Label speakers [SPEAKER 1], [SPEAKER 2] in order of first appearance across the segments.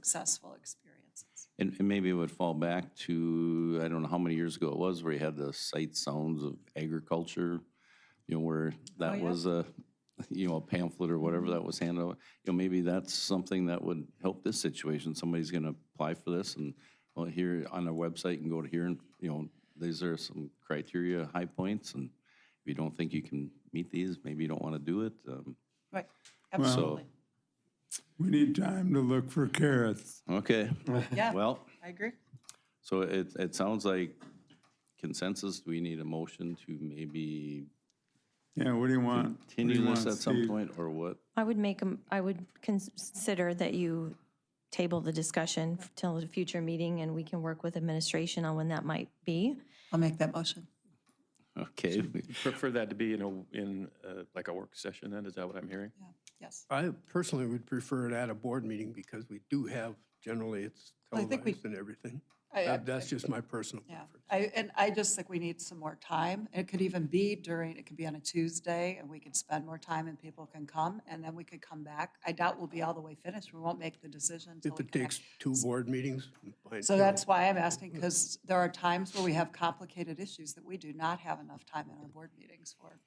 [SPEAKER 1] successful experiences.
[SPEAKER 2] And, and maybe it would fall back to, I don't know how many years ago it was, where you had the sight sounds of agriculture, you know, where
[SPEAKER 1] Oh,
[SPEAKER 2] that
[SPEAKER 1] yeah. Mm-hmm.
[SPEAKER 2] was a, you know, a pamphlet or whatever that was handed out. You know, maybe that's something that would help this situation. Somebody's gonna apply for this and, well, here on our website and go to here and, you know, these are some criteria, high points, and if you don't think you can meet these, maybe you don't wanna do it. Um,
[SPEAKER 1] Right, absolutely.
[SPEAKER 3] We need time to look for carrots.
[SPEAKER 2] okay,
[SPEAKER 1] Yeah,
[SPEAKER 2] well.
[SPEAKER 1] I agree.
[SPEAKER 2] So it, it sounds like consensus, do we need a motion to maybe
[SPEAKER 3] Yeah, what do you want? What do you
[SPEAKER 2] continue this
[SPEAKER 3] want,
[SPEAKER 2] at some
[SPEAKER 3] Steve?
[SPEAKER 2] point, or what?
[SPEAKER 4] I would make, a- I would consider that you table the discussion till a future meeting, and we can work with administration on when that might be.
[SPEAKER 1] I'll make that motion.
[SPEAKER 2] Okay,
[SPEAKER 5] Prefer that to be in a, in uh, like a work session then, is that what I'm hearing?
[SPEAKER 1] Yeah, yes.
[SPEAKER 6] I personally would prefer it at a board meeting because we do have, generally, it's
[SPEAKER 1] I think we-
[SPEAKER 6] televised and everything.
[SPEAKER 1] I- I-
[SPEAKER 6] That- That's just my personal
[SPEAKER 1] Yeah,
[SPEAKER 6] preference.
[SPEAKER 1] I, and I just think we need some more time. It could even be during, it could be on a Tuesday, and we could spend more time and people can come, and then we could come back. I doubt we'll be all the way finished. We won't make the decision until
[SPEAKER 6] If
[SPEAKER 1] we
[SPEAKER 6] it
[SPEAKER 1] can
[SPEAKER 6] takes
[SPEAKER 1] act-
[SPEAKER 6] two board meetings. fine,
[SPEAKER 1] So
[SPEAKER 6] too.
[SPEAKER 1] that's why I'm asking, because there are times where we have complicated issues that we do not have enough time in our board meetings for.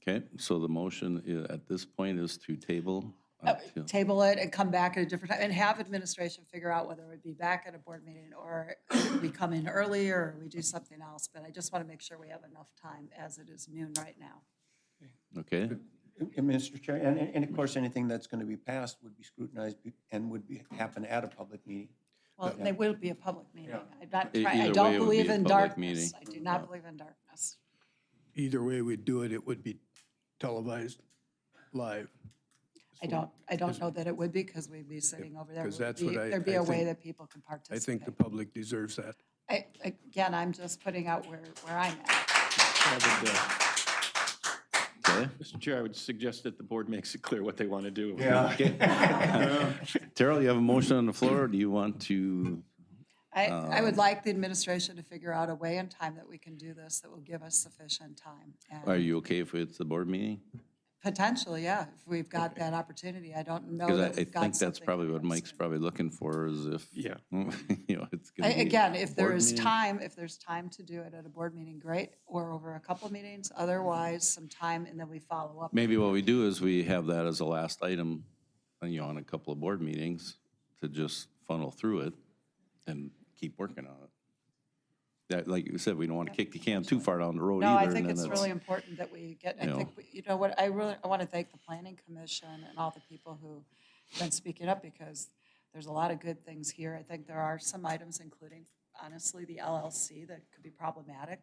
[SPEAKER 2] okay, so the motion i- at this point is to table. uh,
[SPEAKER 1] Uh,
[SPEAKER 2] until-
[SPEAKER 1] Oh, Table it and come back at a different time, and have administration figure out whether it would be back at a board meeting, or we come in earlier, or we do something else. But I just want to make sure we have enough time, as it is noon right now.
[SPEAKER 2] Okay,
[SPEAKER 7] And- and Mr. Chair, and, and of course, anything that's going to be passed would be scrutinized be- and would be, happen at a public meeting.
[SPEAKER 1] Well, they will be a public meeting. I'm not
[SPEAKER 2] E-
[SPEAKER 1] trying, I
[SPEAKER 2] either way,
[SPEAKER 1] don't
[SPEAKER 2] it would
[SPEAKER 1] believe
[SPEAKER 2] be a
[SPEAKER 1] in
[SPEAKER 2] public
[SPEAKER 1] darkness. I
[SPEAKER 2] meeting.
[SPEAKER 1] do not believe in darkness.
[SPEAKER 6] Either way we do it, it would be televised live.
[SPEAKER 1] I don't, I don't know that it would be, because we'd be sitting over there.
[SPEAKER 6] because
[SPEAKER 1] Would
[SPEAKER 6] that's
[SPEAKER 1] be-
[SPEAKER 6] what I-
[SPEAKER 1] There'd be
[SPEAKER 6] I
[SPEAKER 1] a way
[SPEAKER 6] think-
[SPEAKER 1] that people could
[SPEAKER 6] I
[SPEAKER 1] participate.
[SPEAKER 6] think the public deserves that.
[SPEAKER 1] I, again, I'm just putting out where, where I'm at.
[SPEAKER 5] I would, uh,
[SPEAKER 2] okay.
[SPEAKER 5] Mr. Chair, I would suggest that the board makes it clear what they want to do.
[SPEAKER 2] Terrell, you have a motion on the floor, do you want to,
[SPEAKER 1] I, I
[SPEAKER 2] Um,
[SPEAKER 1] would like the administration to figure out a way and time that we can do this that will give us sufficient time.
[SPEAKER 2] are
[SPEAKER 1] And
[SPEAKER 2] you okay if it's the board meeting?
[SPEAKER 1] potentially, yeah, if we've got that opportunity. I don't know
[SPEAKER 2] Because I,
[SPEAKER 1] that
[SPEAKER 2] I
[SPEAKER 1] we've Oh, got
[SPEAKER 2] think that's
[SPEAKER 1] something
[SPEAKER 2] probably
[SPEAKER 1] in
[SPEAKER 2] what
[SPEAKER 1] place.
[SPEAKER 2] Mike's probably looking for, is if, you
[SPEAKER 5] Yeah.
[SPEAKER 2] know, it's
[SPEAKER 1] I-
[SPEAKER 2] gonna be.
[SPEAKER 1] Again, if there
[SPEAKER 2] board
[SPEAKER 1] is
[SPEAKER 2] meeting.
[SPEAKER 1] time, if there's time to do it at a board meeting, great, or over a couple meetings. Otherwise, some time and then we follow up.
[SPEAKER 2] Maybe what we do is we have that as a last item, uh, you know, on a couple of board meetings to just funnel through it and keep working on it. That, like you said, we don't want to kick the can too far down the road either.
[SPEAKER 1] No, I
[SPEAKER 2] and
[SPEAKER 1] think
[SPEAKER 2] then
[SPEAKER 1] it's
[SPEAKER 2] that's-
[SPEAKER 1] really important that we get, I
[SPEAKER 2] you know.
[SPEAKER 1] think, we- you know what, I really, I want to thank the planning commission and all the people who have been speaking up because there's a lot of good things here. I think there are some items, including honestly, the LLC that could be problematic.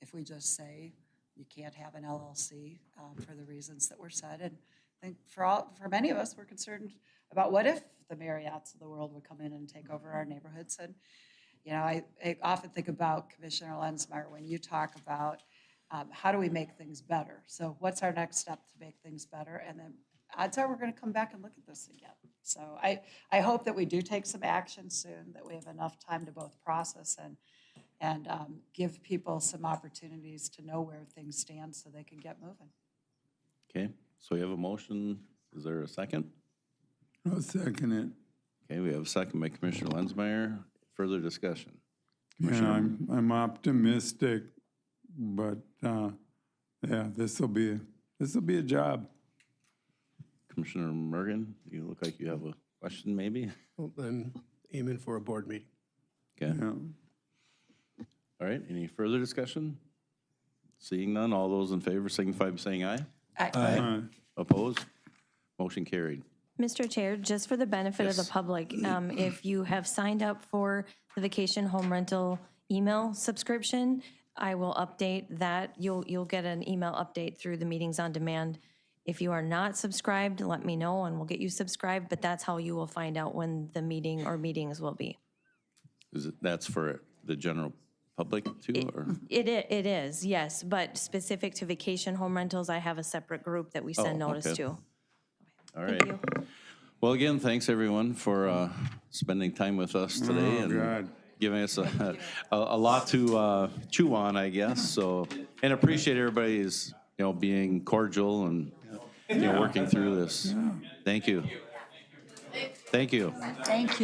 [SPEAKER 1] If we just say you can't have an LLC um, for the reasons that were said. And I think for all, for many of us, we're concerned about what if the Marriotts of the world would come in and take over our neighborhoods and you know, I, I often think about Commissioner Lenzmeyer when you talk about um, how do we make things better? So what's our next step to make things better? And then odds are we're going to come back and look at this again. So I, I hope that we do take some action soon, that we have enough time to both process and, and um, give people some opportunities to know where things stand so they can get moving.
[SPEAKER 2] Okay, so we have a motion. Is there a second?
[SPEAKER 3] I'll second it.
[SPEAKER 2] Okay, we have a second by Commissioner Lenzmeyer. Further discussion?
[SPEAKER 3] Yeah, I'm, I'm optimistic, but, uh, yeah, this'll be, this'll be a job.
[SPEAKER 2] Commissioner Mergan, you look like you have a question maybe?
[SPEAKER 6] Well, Then aiming for a board meeting.
[SPEAKER 2] Okay,
[SPEAKER 3] Yeah.
[SPEAKER 2] all right, any further discussion? Seeing none, all those in favor signify by saying aye.
[SPEAKER 3] Uh,
[SPEAKER 2] Opposed? Motion carried.
[SPEAKER 4] Mr. Chair, just for the benefit of the public, um, if you have signed up for the vacation home rental email subscription, I will update that. You'll, you'll get an email update through the meetings on demand. If you are not subscribed, let me know and we'll get you subscribed, but that's how you will find out when the meeting or meetings will be.
[SPEAKER 2] Is it, that's for the general public too, or?
[SPEAKER 4] It, i- it is, yes, but specific to vacation home rentals, I have a separate group that we send
[SPEAKER 2] Oh,
[SPEAKER 4] notice
[SPEAKER 2] okay.
[SPEAKER 4] to.
[SPEAKER 2] All right. Well, again, thanks everyone for uh, spending time with us today and
[SPEAKER 3] God.
[SPEAKER 2] giving us a, a, a lot to uh, chew on, I guess. So, and appreciate everybody's, you know, being cordial and, you know, working through this. Thank you.
[SPEAKER 8] Thank you.
[SPEAKER 2] Thank you.